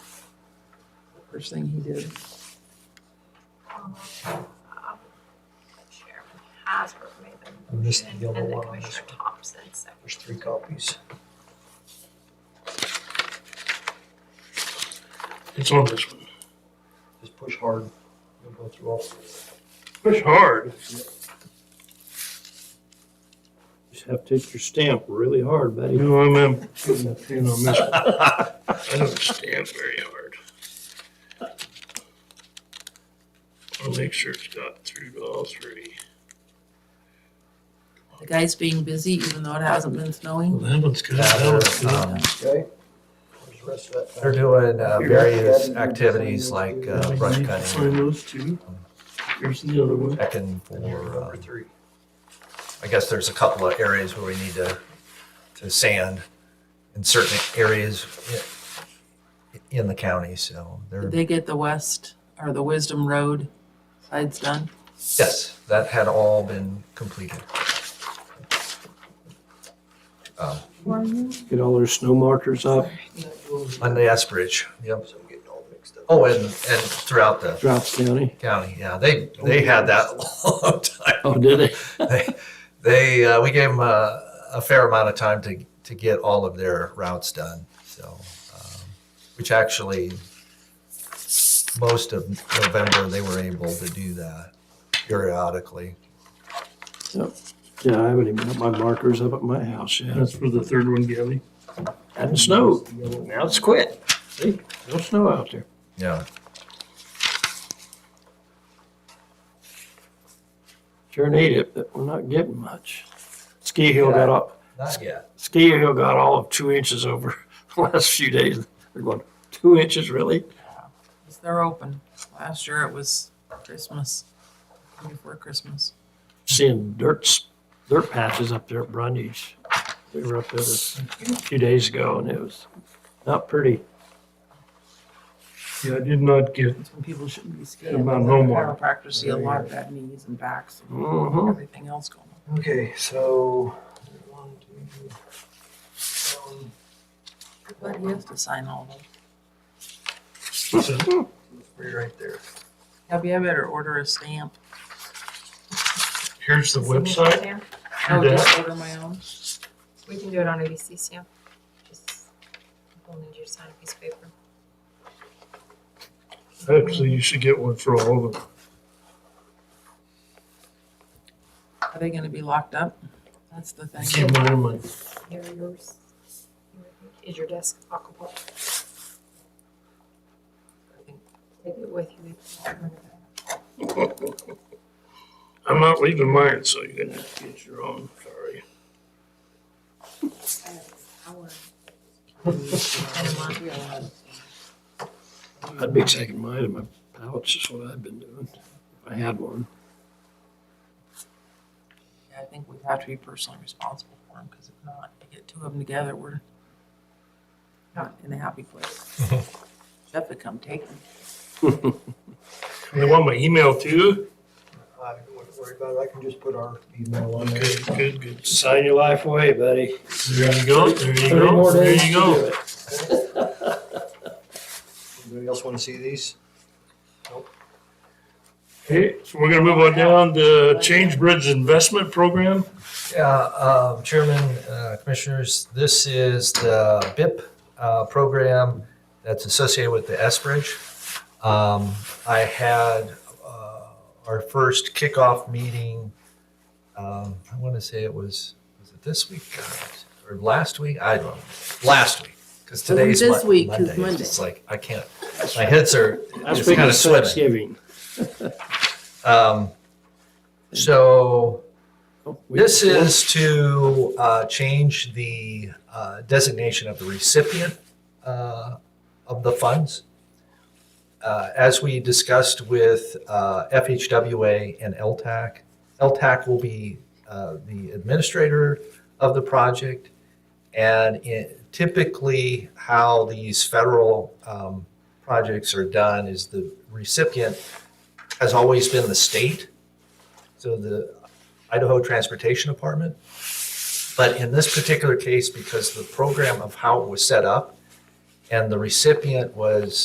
First thing he did. Chairman Hasbro made the And this is motion, the and yellow then one on this Commissioner Thompson seconded. There's three copies. It's on this one. Just push hard. You'll go through all. Push hard. Just have to hit your stamp really hard, You buddy. know, I'm, I'm putting a pin on this one. I don't stamp very hard. I'll make sure it's got through to all three. The guy's being busy even though it hasn't been Well, snowing. that one's good. Yeah, That one's they're, good. um, Okay? Where's the rest of that? they're doing uh, various activities like uh, brush You can Find cutting, those two. Here's the other one. checking for, Number um, three. I guess there's a couple of areas where we need to, to sand in certain areas i- in the county, so Did they're, they get the west or the Wisdom Road sides done? yes, that had all been completed. Um, Get all their snow markers up, On the S Bridge, yep. So I'm getting all mixed up. Oh, and, and throughout the Drops eh? County. county, yeah, they, they had that a long time Oh, did they? they, they uh, we gave them a, a fair amount of time to, to get all of their routes done. So, um, which actually, most of November they were able to do that periodically. Yeah, I haven't even got my markers up at my house yet. That's for the third one, Gabby. Hadn't snowed. Now it's quit. See, no snow out there. Yeah. Sure need it, but we're not getting much. Ski Hill got up, Not yet. Ski Hill got all of two inches over the last few days. They're going, two inches, really? 'Cause They're open. Last year it was Christmas, before Christmas. Seeing dirt, s- dirt patches up there at Brundage. We were up there this- a few days ago and it was not pretty. Yeah, I did not get That's when people shouldn't be skiing. About Because homework. Chiropractors see a lot of bad knees and backs and Mm-hmm. everything else going on. Okay, so. one, two, three. But he has to sign all of them. Three right there. Gabby, I better order a stamp. Here's the website. Sam? Oh, Do that. just order my own. We can do it on ABC, Sam. Just, we'll need you to sign a piece of paper. Actually, you should get one for all of them. Are they gonna be locked up? That's the I thing. keep mine in my Here are yours. Is your desk lockable? Take it with you. I'm not leaving mine, so you're gonna have to get your own, sorry. I'd be taking mine in my pouch, is what I've been doing. If I had one. Yeah, I think we have to be personally responsible for them, because if not, you get two of them together, we're not in a happy place. Jeff would come take them. They want my email too? I don't want to worry about it. I can just put our email on there. Good, good, good. Sign your life away, buddy. There you go, there you Three go, more there days you to do go. it. Anybody else want to see these? Okay, so we're gonna move on down to Change Bridge Investment Program. Yeah, um, Chairman, uh, Commissioners, this is the BIP uh, program that's associated with the S Bridge. Um, I had uh, our first kickoff meeting. Um, I want to say it was was it this week God, or last week? I don't know. Last week, because It was today's this Mon- week, 'cause Monday. Monday. It's like I can't. My heads are That's it's kind of swimming. Thanksgiving. Um, so. Oh, we- This is to uh, change the uh, designation of the recipient uh, of the funds. Uh, As we discussed with uh, FHWA and LTAC, LTAC will be uh, the administrator of the project. And it- typically, how these federal um, projects are done is the recipient has always been the state. So the Idaho Transportation Department. But in this particular case, because the program of how it was set up and the recipient was